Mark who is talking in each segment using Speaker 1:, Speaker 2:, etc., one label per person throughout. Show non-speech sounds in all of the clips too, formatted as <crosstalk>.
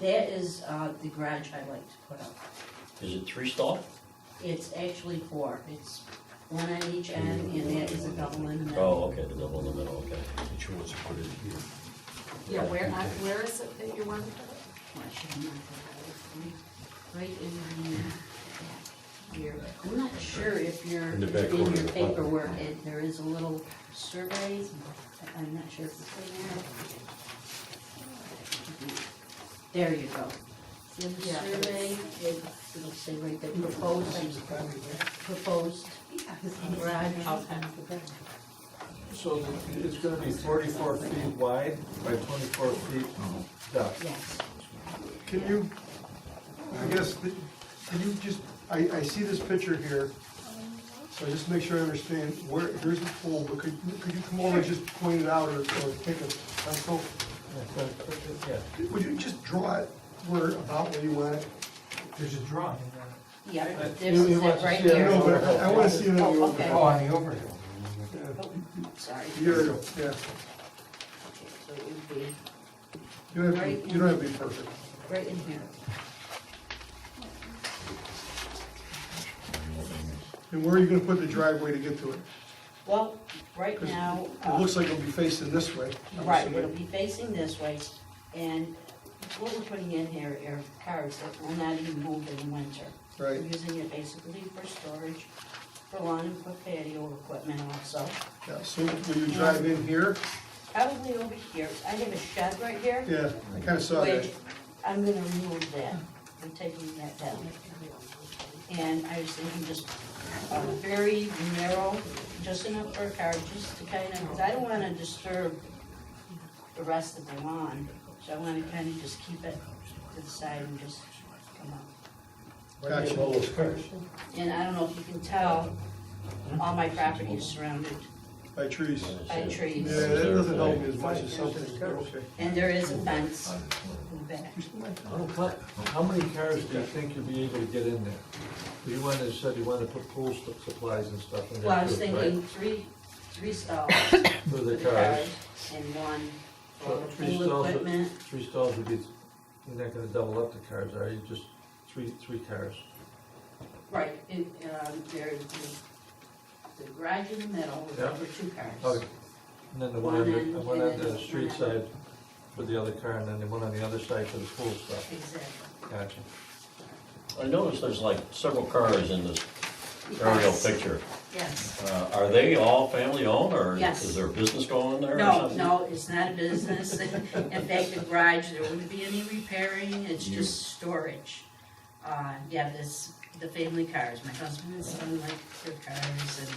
Speaker 1: That is, uh, the garage I like to put up.
Speaker 2: Is it three stall?
Speaker 1: It's actually four, it's one on each end, and that is a double in the middle.
Speaker 2: Oh, okay, the double in the middle, okay.
Speaker 3: She wants to put it here.
Speaker 4: Yeah, where, I- where is it that you want to put it?
Speaker 1: Why should I not have that? Right in the back here. I'm not sure if you're,
Speaker 3: In the
Speaker 1: in
Speaker 3: back corner of
Speaker 1: your
Speaker 3: the file.
Speaker 1: paperwork, it- there is a little survey, I'm not sure if it's in there. There you go. In the
Speaker 4: Yeah.
Speaker 1: survey, it- it'll say right there, proposed, proposed garage.
Speaker 4: Okay.
Speaker 5: So it's gonna be forty-four feet wide by twenty-four feet depth.
Speaker 1: Yes,
Speaker 6: Can you, I guess, the- can you just, I, I see this picture here, so just make sure I understand where, here's the pole, but could, could you come over and just point it out or, or take a pencil?
Speaker 5: Yeah.
Speaker 6: Would you just draw it where, about where you want it?
Speaker 7: There's a drawing.
Speaker 1: yeah,
Speaker 5: Uh, You-
Speaker 1: this
Speaker 5: you
Speaker 1: is
Speaker 5: want
Speaker 1: it
Speaker 5: to
Speaker 1: right
Speaker 5: see it?
Speaker 6: No,
Speaker 1: here.
Speaker 6: but I I wanna see it on the
Speaker 1: Oh,
Speaker 6: overhead.
Speaker 1: okay.
Speaker 7: Oh, on the overhead.
Speaker 1: Sorry.
Speaker 6: Here, it is, yeah,
Speaker 1: Okay, So it would be
Speaker 6: you don't have, to be- you don't have to be perfect.
Speaker 1: right in here.
Speaker 6: And where are you gonna put the driveway to get to it?
Speaker 1: Well, right
Speaker 6: 'Cause
Speaker 1: now.
Speaker 6: It
Speaker 1: uh,
Speaker 6: looks like it'll be facing this way. I'm
Speaker 1: Right,
Speaker 6: assuming.
Speaker 1: it'll be facing this way, and what we're putting in here are cars that will not even move in the winter.
Speaker 6: Right.
Speaker 1: We're using it basically for storage, for lawn and for patio equipment also.
Speaker 6: Yeah, so will you drive in here?
Speaker 1: Probably over here, I have a shed right here,
Speaker 6: Yeah, I kinda saw that.
Speaker 1: which I'm gonna remove that, I'm taking that down. And I was thinking just a very narrow, just enough for a car, just to kind of, because I don't want to disturb the rest of the lawn, so I want to kind of just keep it to the side and just come up.
Speaker 6: Gotcha.
Speaker 5: All those cars.
Speaker 1: And I don't know if you can tell, all my property is surrounded
Speaker 6: By trees.
Speaker 1: by trees.
Speaker 6: Yeah, that doesn't help me as much as something, but okay.
Speaker 1: And there is a fence in the back.
Speaker 5: How many cars do you think you'll be able to get in there? You wanted, said you wanted to put pool su- supplies and stuff in there.
Speaker 1: Well, I was
Speaker 5: too,
Speaker 1: thinking
Speaker 5: right?
Speaker 1: three, three stalls
Speaker 5: For
Speaker 1: for the
Speaker 5: the cars.
Speaker 1: cars and one for
Speaker 5: So
Speaker 1: the
Speaker 5: three stalls
Speaker 1: pool
Speaker 5: would-
Speaker 1: equipment.
Speaker 5: Three stalls would be, you're not gonna double up the cars, are you? Just three, three cars.
Speaker 1: Right, and, um, there is the, the garage in the middle with
Speaker 5: Yeah.
Speaker 1: over two cars.
Speaker 5: Okay. And then the one on
Speaker 1: One
Speaker 5: the,
Speaker 1: end
Speaker 5: and one on
Speaker 1: and
Speaker 5: the
Speaker 1: then
Speaker 5: street
Speaker 1: one end.
Speaker 5: side for the other car, and then the one on the other side for the pool stuff.
Speaker 1: Exactly.
Speaker 5: Gotcha.
Speaker 2: I noticed there's like several cars in this aerial
Speaker 1: Yes,
Speaker 2: picture.
Speaker 1: Yes.
Speaker 2: Uh, are they all family owned, or
Speaker 1: Yes.
Speaker 2: is there a business going in there or
Speaker 1: No,
Speaker 2: something?
Speaker 1: no, it's not a business. <laughs> In fact, the garage, there wouldn't be any repairing, it's just storage. Uh, yeah, this, the family cars, my husband and son like their cars and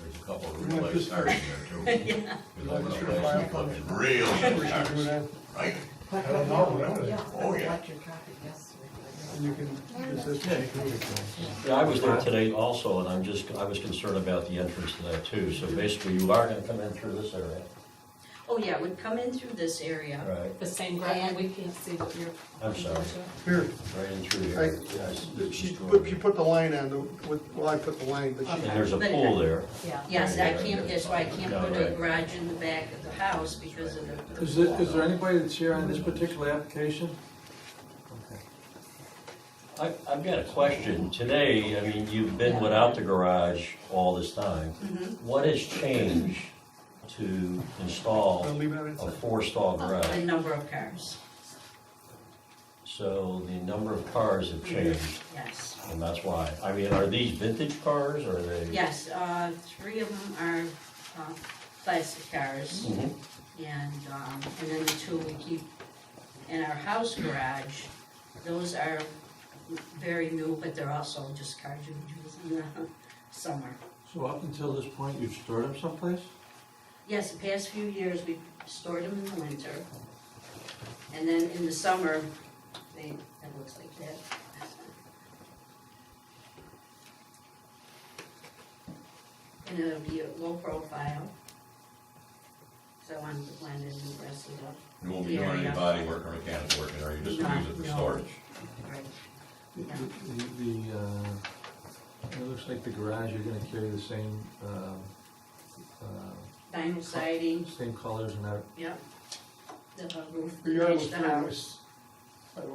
Speaker 8: There's a couple of
Speaker 6: You
Speaker 8: real
Speaker 6: want
Speaker 8: life
Speaker 6: this-
Speaker 8: stars in there too.
Speaker 1: <laughs>
Speaker 6: <laughs>
Speaker 1: Yeah.
Speaker 8: You know,
Speaker 6: Like
Speaker 8: when I
Speaker 6: your
Speaker 8: was
Speaker 6: file
Speaker 8: fucking Real life
Speaker 6: Should we do
Speaker 8: stars,
Speaker 6: that?
Speaker 8: right?
Speaker 7: I don't know.
Speaker 4: Yeah,
Speaker 8: Oh, yeah.
Speaker 4: Electric copy, yes.
Speaker 6: And you can, just this, yeah, you can do it.
Speaker 2: Yeah, I was there today also, and I'm just, I was concerned about the entrance to that too,
Speaker 1: Mm-hmm.
Speaker 2: so basically you are gonna come in through this area.
Speaker 1: Oh, yeah, would come in through this area.
Speaker 2: Right.
Speaker 4: The same graphic, we can see what you're.
Speaker 2: I'm sorry.
Speaker 6: Here,
Speaker 2: Right in through
Speaker 6: I,
Speaker 2: here. Yeah, I see this
Speaker 6: she,
Speaker 2: drawing.
Speaker 6: but she put the line on, the with- well, I put the line, but
Speaker 2: And
Speaker 6: she,
Speaker 2: there's a
Speaker 1: But-
Speaker 2: pool there.
Speaker 4: Yeah.
Speaker 1: Yes, I can't, that's why I can't
Speaker 2: Yeah,
Speaker 1: put a
Speaker 2: right.
Speaker 1: garage in the back of the house because of the.
Speaker 5: Is there, is there anybody that's here on this particular application? Okay.
Speaker 2: I, I've got a question. Today, I mean, you've been without the garage all this time. What has changed to install
Speaker 6: I'll leave it on its
Speaker 2: a
Speaker 6: side.
Speaker 2: four-stall
Speaker 1: The
Speaker 2: garage?
Speaker 1: number of cars,
Speaker 2: So the number of cars have changed,
Speaker 1: yes.
Speaker 2: and that's why. I mean, are these vintage cars, or are they?
Speaker 1: Yes, uh, three of them are, uh, classic cars
Speaker 2: Mhm.
Speaker 1: and, um, and then the two we keep in our house garage. Those are very new, but they're also just cars you would use in the <laughs> summer.
Speaker 5: So up until this point, you've stored them someplace?
Speaker 1: Yes, the past few years, we stored them in the winter. And then in the summer, they, it looks like that. And it'll be a low profile. So I wanted to blend in and dress it up.
Speaker 8: You won't be doing any body work or mechanical work in there, you just
Speaker 1: No,
Speaker 8: use it for
Speaker 1: no.
Speaker 8: storage.
Speaker 1: Right.
Speaker 5: The, the- the, uh, it looks like the garage, you're gonna carry the same, um, uh,
Speaker 1: Vinyl siding,
Speaker 5: same colors and that.
Speaker 1: yep. The uh, roof,
Speaker 6: your yard
Speaker 1: match
Speaker 6: was
Speaker 1: the
Speaker 6: pretty
Speaker 1: house.
Speaker 6: nice. I don't